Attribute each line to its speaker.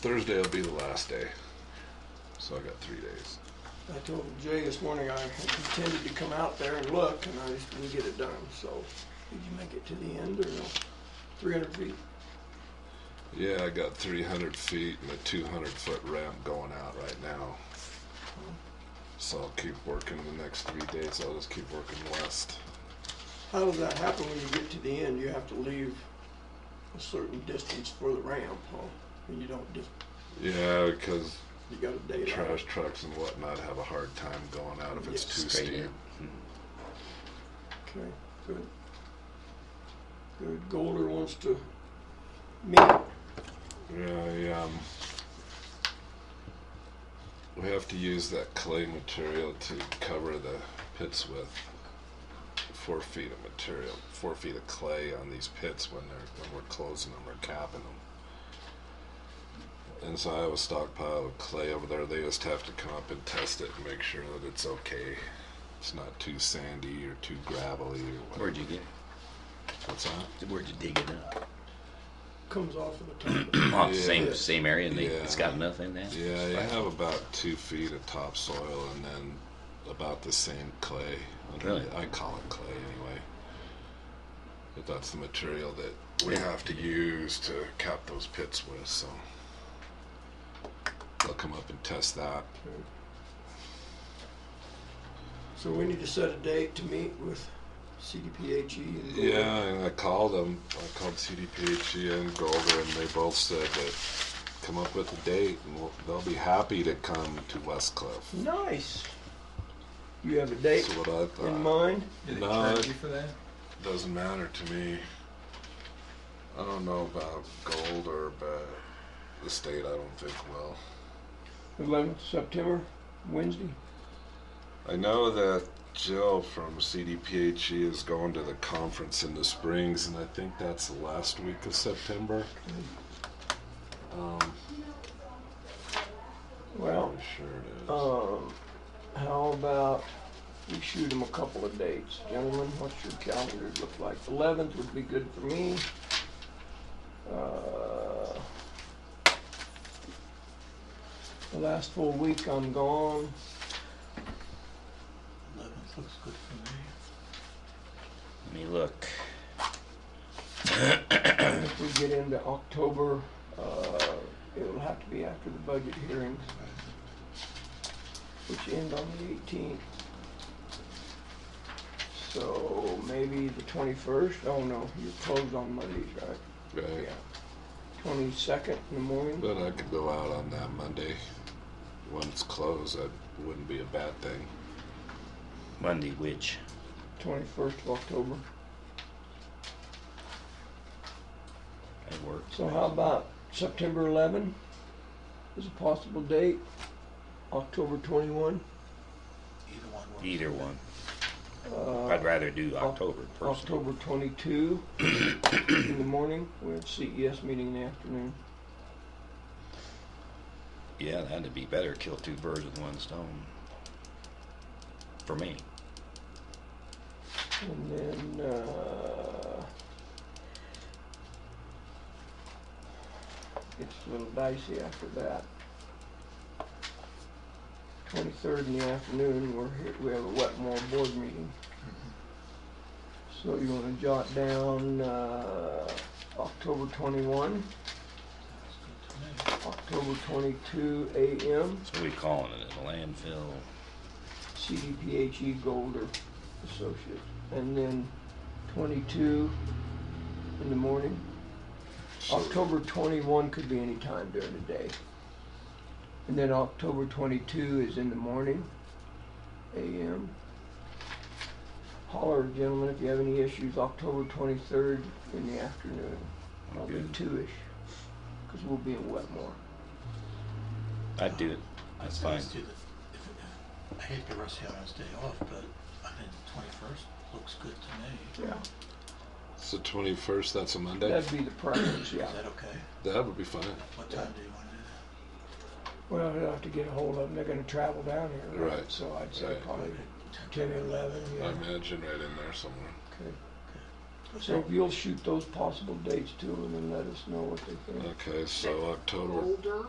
Speaker 1: Thursday will be the last day. So I got three days.
Speaker 2: I told Jay this morning I intended to come out there and look, and I just didn't get it done, so. Did you make it to the end or no? Three hundred feet?
Speaker 1: Yeah, I got 300 feet and a 200 foot ramp going out right now. So I'll keep working the next three days. I'll just keep working west.
Speaker 2: How does that happen when you get to the end? You have to leave a certain distance for the ramp, huh? And you don't just,
Speaker 1: Yeah, because
Speaker 2: you got a date on it.
Speaker 1: trash trucks and whatnot have a hard time going out if it's
Speaker 2: Yeah,
Speaker 1: too
Speaker 3: straight
Speaker 1: steep.
Speaker 3: in.
Speaker 2: Okay, good. Good, Golder wants to meet.
Speaker 1: Yeah, I, um, we have to use that clay material to cover the pits with four feet of material, four feet of clay on these pits when they're when we're closing them or capping them. And so I have a stockpile of clay over there. They just have to come up and test it and make sure that it's okay. It's not too sandy or too gravelly or whatever.
Speaker 3: Where'd you get it?
Speaker 1: What's that?
Speaker 3: Where'd you dig it up?
Speaker 2: comes off of the top.
Speaker 3: Oh,
Speaker 1: Yeah.
Speaker 3: same same area, and they,
Speaker 1: Yeah.
Speaker 3: it's got enough in there.
Speaker 1: Yeah, you have about two feet of topsoil and then about the same clay. under
Speaker 3: Really?
Speaker 1: it. I call it clay anyway. But that's the material that we
Speaker 3: Yeah.
Speaker 1: have to use to cap those pits with. So they'll come up and test that.
Speaker 2: So we need to set a date to meet with CDPHE E and. Golder.
Speaker 1: Yeah, and I called them. I called CDPHE E and Golder, and they both said that come up with a date and we'll, they'll be happy to come to West Cliff.
Speaker 2: Nice. You have a date
Speaker 1: That's what I
Speaker 2: in
Speaker 1: thought.
Speaker 2: mind?
Speaker 4: Did they
Speaker 1: No,
Speaker 4: charge
Speaker 1: it-
Speaker 4: you for that?
Speaker 1: Doesn't matter to me. I don't know about gold or about the state. I don't think will.
Speaker 2: Eleventh September, Wednesday.
Speaker 1: I know that Jill from CDPHE is going to the conference in the Springs, and I think that's the last week of September. Um,
Speaker 2: Well,
Speaker 1: I'm sure it is.
Speaker 2: um, how about we shoot them a couple of dates? Gentlemen, what's your calendar look like? Eleventh would be good for me. Uh, The last full week I'm gone.
Speaker 4: Eleventh looks good for
Speaker 3: Let
Speaker 4: me.
Speaker 3: me look.
Speaker 2: And If we get into October, uh, it'll have to be after the budget hearings, which end on the eighteenth. So maybe the twenty-first, oh no, you're closed on Mondays, right?
Speaker 1: Right.
Speaker 2: Twenty-second in the morning,
Speaker 1: But I could go out on that Monday. When it's closed, that wouldn't be a bad thing.
Speaker 3: Monday, which?
Speaker 2: twenty-first of October.
Speaker 3: That works.
Speaker 2: So how about September eleven is a possible date, October twenty-one?
Speaker 4: Either one works.
Speaker 3: Either one.
Speaker 2: Uh,
Speaker 3: I'd rather do October personally.
Speaker 2: October 22 in the morning. We have CES E meeting in the afternoon.
Speaker 3: Yeah, that'd be better. Kill two birds with one stone. For me.
Speaker 2: And then, uh, it's a little dicey after that. 23rd in the afternoon, we're here, we have a Wetmore board meeting. So you want to jot down uh, October 21,
Speaker 4: That's good to me.
Speaker 2: October 22 a.m.
Speaker 3: So we calling it a landfill.
Speaker 2: CDPHE Golder Associate, and then 22 in the morning.
Speaker 1: So-
Speaker 2: October 21 could be any time during the day. And then October 22 is in the morning, AM. Holler, gentlemen, if you have any issues, October 23rd in the afternoon,
Speaker 3: I'm
Speaker 2: probably
Speaker 3: good.
Speaker 2: two-ish, because we'll be in Wetmore.
Speaker 3: I'd do it. That's
Speaker 4: say
Speaker 3: fine.
Speaker 4: let's do the- if- if- I hate to rush out on his day off, but I think the twenty-first looks good to me.
Speaker 2: Yeah.
Speaker 1: It's the 21st, that's a Monday?
Speaker 2: That'd be the preference, yeah.
Speaker 4: Is that okay?
Speaker 1: that would be fine.
Speaker 4: What time do you want to do that?
Speaker 2: Well, they'll have to get a hold of them, they're gonna travel down here, right?
Speaker 1: Right.
Speaker 2: So I'd say
Speaker 1: Right.
Speaker 2: probably
Speaker 4: Ten
Speaker 2: ten or eleven, yeah.
Speaker 1: I imagine right in there somewhere.
Speaker 2: Okay. So if you'll shoot those possible dates too and then let us know what they think.
Speaker 1: Okay, so October
Speaker 5: Older.